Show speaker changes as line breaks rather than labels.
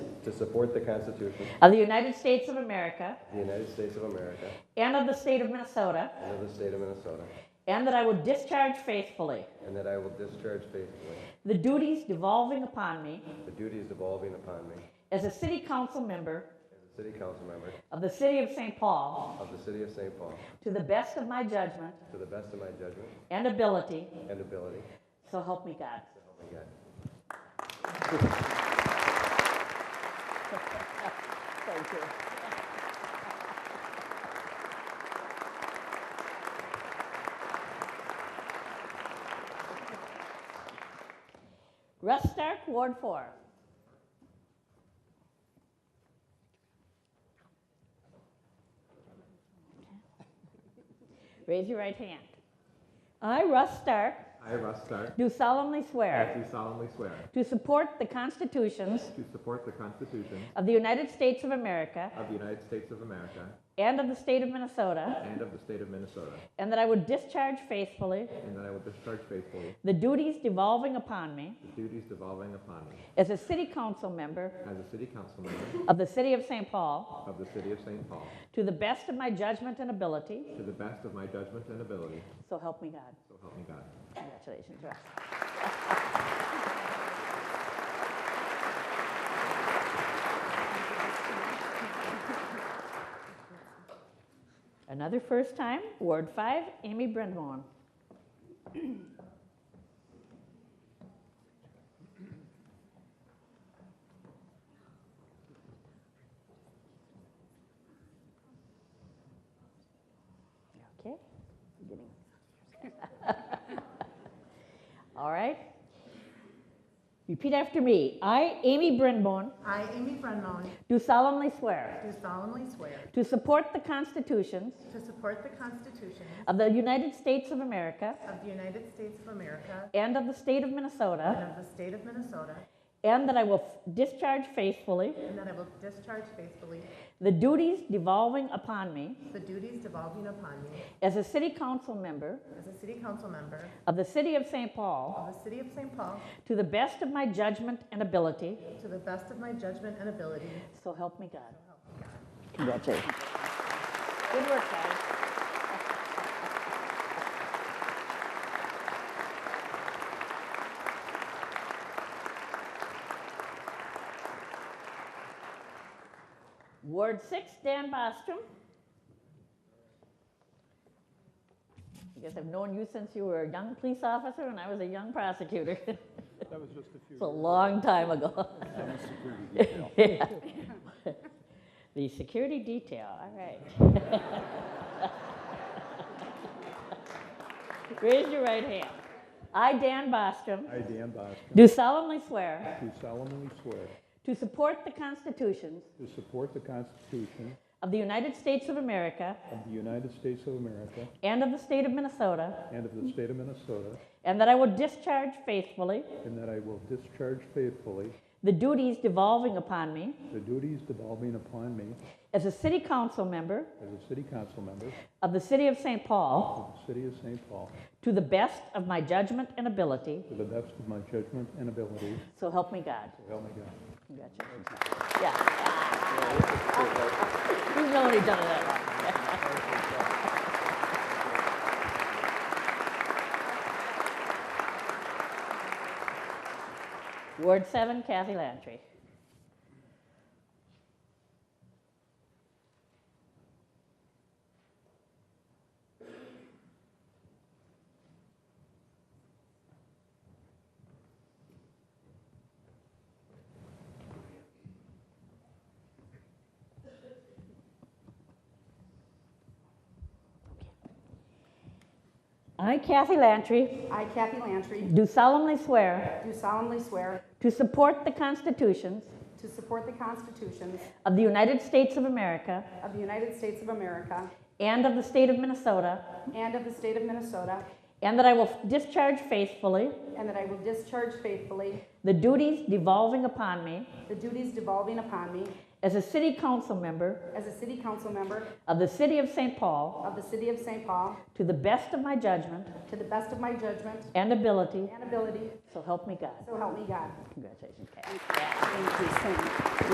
to support the Constitution
of the United States of America
of the United States of America
and of the state of Minnesota,
and of the state of Minnesota,
and that I will discharge faithfully
and that I will discharge faithfully
the duties devolving upon me
the duties devolving upon me
as a city council member
as a city council member
of the city of St. Paul
of the city of St. Paul
to the best of my judgment
to the best of my judgment
and ability,
and ability.
so help me God.
So help me God.
Thank you. Russ Stark, Ward 4. Raise your right hand. I, Russ Stark,
I, Russ Stark,
do solemnly swear
do solemnly swear
to support the constitutions
to support the Constitution
of the United States of America
of the United States of America
and of the state of Minnesota,
and of the state of Minnesota,
and that I would discharge faithfully
and that I will discharge faithfully
the duties devolving upon me
the duties devolving upon me
as a city council member
as a city council member
of the city of St. Paul
of the city of St. Paul
to the best of my judgment and ability.
to the best of my judgment and ability,
So help me God.
so help me God.
Congratulations, Russ. Another first time, Ward 5, Amy Brindamon. Okay, beginning. All right. Repeat after me. I, Amy Brindamon,
I, Amy Brennan,
do solemnly swear
do solemnly swear
to support the constitutions
to support the Constitution
of the United States of America
of the United States of America
and of the state of
and
Minnesota,
of the state of Minnesota,
and that I will f- discharge faithfully
and that I will discharge faithfully
the duties devolving upon me
the duties devolving upon me
as a city council member
as a city council member
of the city of St. Paul
of the city of St. Paul
to the best of my judgment and ability.
to the best of my judgment and ability.
So help me God. Congratulations. Good work, guys. Ward six, Dan Bostrom. I guess I've known you since you were a young police officer and I was a young prosecutor.
That was just a few.
It's a long time ago.
Some security detail.
Yeah. The security detail, all right. Raise your right hand. I, Dan Bostrom,
I, Dan Bostrom,
do solemnly swear
do solemnly swear
to support the constitutions
to support the Constitution
of the United States of America
of the United States of America
and of the state of Minnesota,
and of the state of Minnesota,
and that I will discharge faithfully
and that I will discharge faithfully
the duties devolving upon me
the duties devolving upon me
as a city council member
as a city council member
of the city of St. Paul
of the city of St. Paul
to the best of my judgment and ability,
to the best of my judgment and ability,
so help me God.
so help me God.
Congratulations. Yeah. We've known each other that long. Ward seven, Kathy Lantry. I, Kathy Lantry,
I, Kathy Lantry,
do solemnly swear
do solemnly swear
to support the constitutions
to support the constitutions
of the United States of America
of the United States of America
and of the state of Minnesota,
and of the state of Minnesota,
and that I will discharge faithfully
and that I will discharge faithfully
the duties devolving upon me
the duties devolving upon me
as a city council member
as a city council member
of the city of St. Paul
of the city of St. Paul
to the best of my judgment
to the best of my judgment
and ability,
and ability,
so help me God.
so help me God.
Congratulations, Kathy.
Thank you. Thank you.